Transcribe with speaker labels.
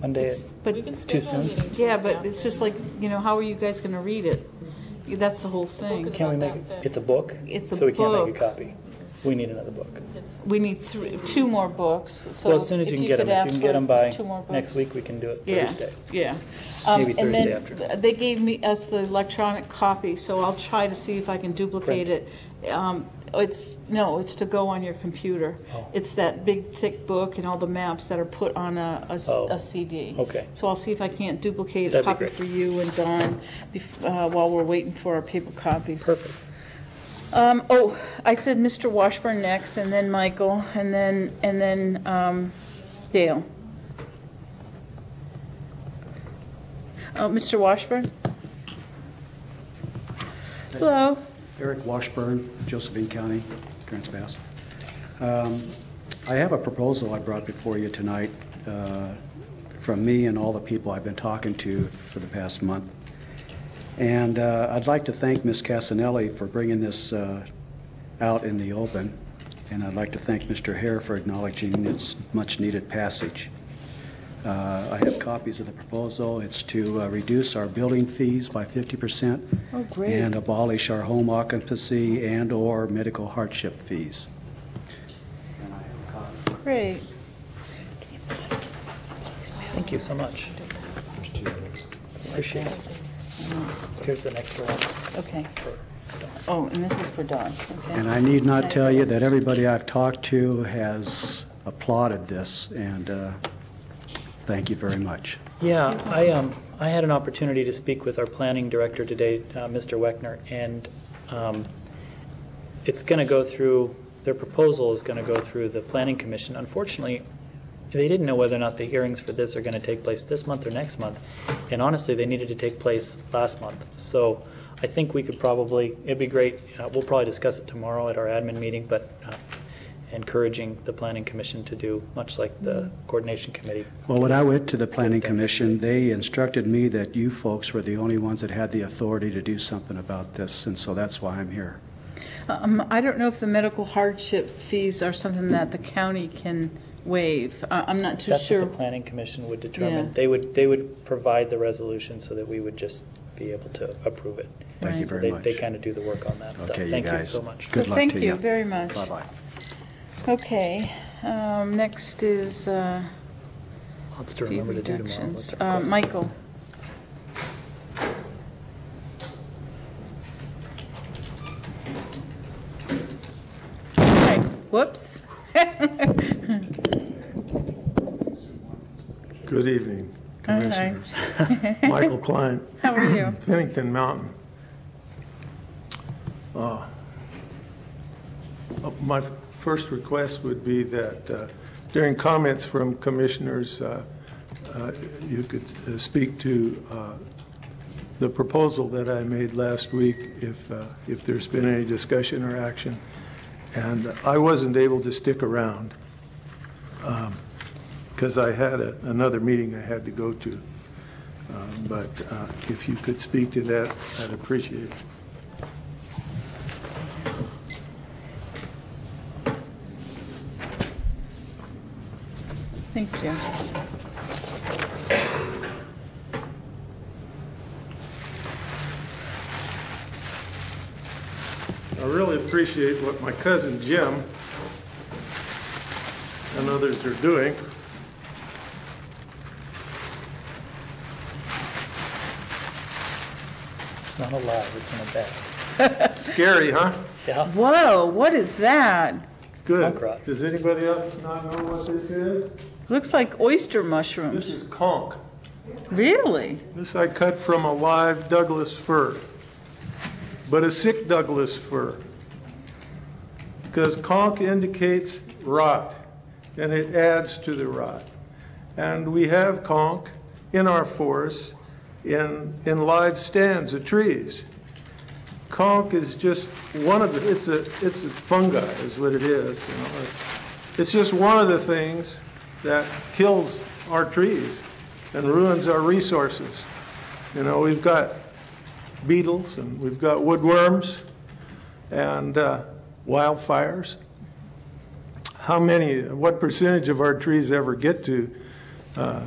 Speaker 1: Monday,
Speaker 2: It's- But,
Speaker 3: We can
Speaker 1: It's too
Speaker 3: schedule a
Speaker 1: soon.
Speaker 3: meeting
Speaker 2: yeah,
Speaker 3: Tuesday
Speaker 2: but it's just
Speaker 3: afternoon.
Speaker 2: like, you know, how are you guys gonna read it? That's the whole
Speaker 3: book
Speaker 2: thing.
Speaker 3: is-
Speaker 1: can we
Speaker 3: about
Speaker 1: make,
Speaker 3: that thick.
Speaker 1: it's a book?
Speaker 2: It's a
Speaker 1: So we can't make
Speaker 2: book.
Speaker 1: a copy. We need another book.
Speaker 3: It's-
Speaker 2: We need three, two more books, so.
Speaker 1: Well, as soon as
Speaker 2: if
Speaker 1: you can get them,
Speaker 2: could
Speaker 1: if you can
Speaker 2: ask
Speaker 1: get
Speaker 2: for
Speaker 1: them by
Speaker 2: two more
Speaker 1: next
Speaker 2: books.
Speaker 1: week, we can do it
Speaker 2: Yeah,
Speaker 1: Thursday.
Speaker 2: yeah. Um,
Speaker 1: Maybe
Speaker 2: and
Speaker 1: Thursday
Speaker 2: then
Speaker 1: after.
Speaker 2: th- They gave me, us the electronic copy, so I'll try to see if I can duplicate
Speaker 1: Print.
Speaker 2: it. Um, It's, no, it's to go on your computer.
Speaker 1: Oh.
Speaker 2: It's that big thick book and all the maps that are put on a, a s-
Speaker 1: Oh,
Speaker 2: a CD.
Speaker 1: okay.
Speaker 2: So I'll see if I can't duplicate a
Speaker 1: That'd be
Speaker 2: copy
Speaker 1: great.
Speaker 2: for you and Don bef- uh, while we're waiting for our paper copies.
Speaker 1: Perfect.
Speaker 2: Um, oh, I said Mr. Washburn next, and then Michael, and then, and then, um, Dale. Uh, Mr. Washburn? Hello?
Speaker 4: Eric Washburn, Josephine County, Grants Pass. Um, I have a proposal I brought before you tonight uh, from me and all the people I've been talking to for the past month. And uh, I'd like to thank Ms. Casanelli for bringing this uh, out in the open, and I'd like to thank Mr. Hare for acknowledging its much-needed passage. Uh, I have copies of the proposal. It's to uh, reduce our building fees by 50%.
Speaker 2: Oh, great.
Speaker 4: And abolish our home occupancy and/or medical hardship fees.
Speaker 2: Great.
Speaker 1: Thank you so much. Appreciate it. Here's the next one.
Speaker 2: Okay. Oh, and this is for Don,
Speaker 4: And
Speaker 2: okay.
Speaker 4: I need not tell you that everybody I've talked to has applauded this, and uh, thank you very much.
Speaker 1: Yeah, I, um, I had an opportunity to speak with our planning director today, uh, Mr. Weckner, and, um, it's gonna go through, their proposal is gonna go through the planning commission. Unfortunately, they didn't know whether or not the hearings for this are gonna take place this month or next month. And honestly, they needed to take place last month. So I think we could probably, it'd be great, uh, we'll probably discuss it tomorrow at our admin meeting, but, uh, encouraging the planning commission to do, much like the coordination committee.
Speaker 4: Well, when I went to the Planning Commission, they instructed me that you folks were the only ones that had the authority to do something about this, and so that's why I'm here.
Speaker 2: Um, I don't know if the medical hardship fees are something that the county can waive. I, I'm not too
Speaker 1: That's what the
Speaker 2: sure.
Speaker 1: planning commission would
Speaker 2: Yeah.
Speaker 1: determine. They would, they would provide the resolution so that we would just be able to approve it.
Speaker 4: Thank you
Speaker 2: Right.
Speaker 1: So
Speaker 4: very
Speaker 1: they,
Speaker 4: much.
Speaker 1: they kind of do the work on that stuff.
Speaker 4: Okay, you
Speaker 1: Thank you
Speaker 4: guys.
Speaker 1: so much.
Speaker 4: Good
Speaker 2: So
Speaker 4: luck
Speaker 2: thank
Speaker 4: to
Speaker 2: you
Speaker 4: you.
Speaker 2: very much.
Speaker 4: Bye-bye.
Speaker 2: Okay, um, next is, uh,
Speaker 1: Lots to remember to do tomorrow.
Speaker 2: Reductions.
Speaker 1: Let's
Speaker 2: Uh,
Speaker 1: request-
Speaker 2: Michael? Okay, Whoops.
Speaker 5: Good evening,
Speaker 2: Hi.
Speaker 5: Commissioners. Michael Klein,
Speaker 2: How are you?
Speaker 5: Pennington Mountain. Uh, uh, My first request would be that uh, during comments from commissioners, uh, uh, you could uh, speak to uh, the proposal that I made last week, if, uh, if there's been any discussion or action. And I wasn't able to stick around because I had a- another meeting I had to go to. Um, But uh, if you could speak to that, I'd appreciate it.
Speaker 2: Thank you.
Speaker 5: I really appreciate what my cousin Jim and others are doing.
Speaker 1: It's not a lie, it's in a bag.
Speaker 5: Scary, huh?
Speaker 1: Yeah,
Speaker 2: Whoa, what is that?
Speaker 5: Good.
Speaker 1: Punk rock.
Speaker 5: Does anybody else not know what this is?
Speaker 2: Looks like oyster
Speaker 5: This
Speaker 2: mushrooms.
Speaker 5: is conch.
Speaker 2: Really?
Speaker 5: This I cut from a live Douglas fir, but a sick Douglas fir. Because conch indicates rot, and it adds to the rot. And we have conch in our forests, in, in live stands of trees. Conch is just one of the, it's a, it's a fungi is what it is, you know. It's- It's just one of the things that kills our trees and ruins our resources. You know, we've got beetles and we've got woodworms and uh, wildfires. How many, what percentage of our trees ever get to uh,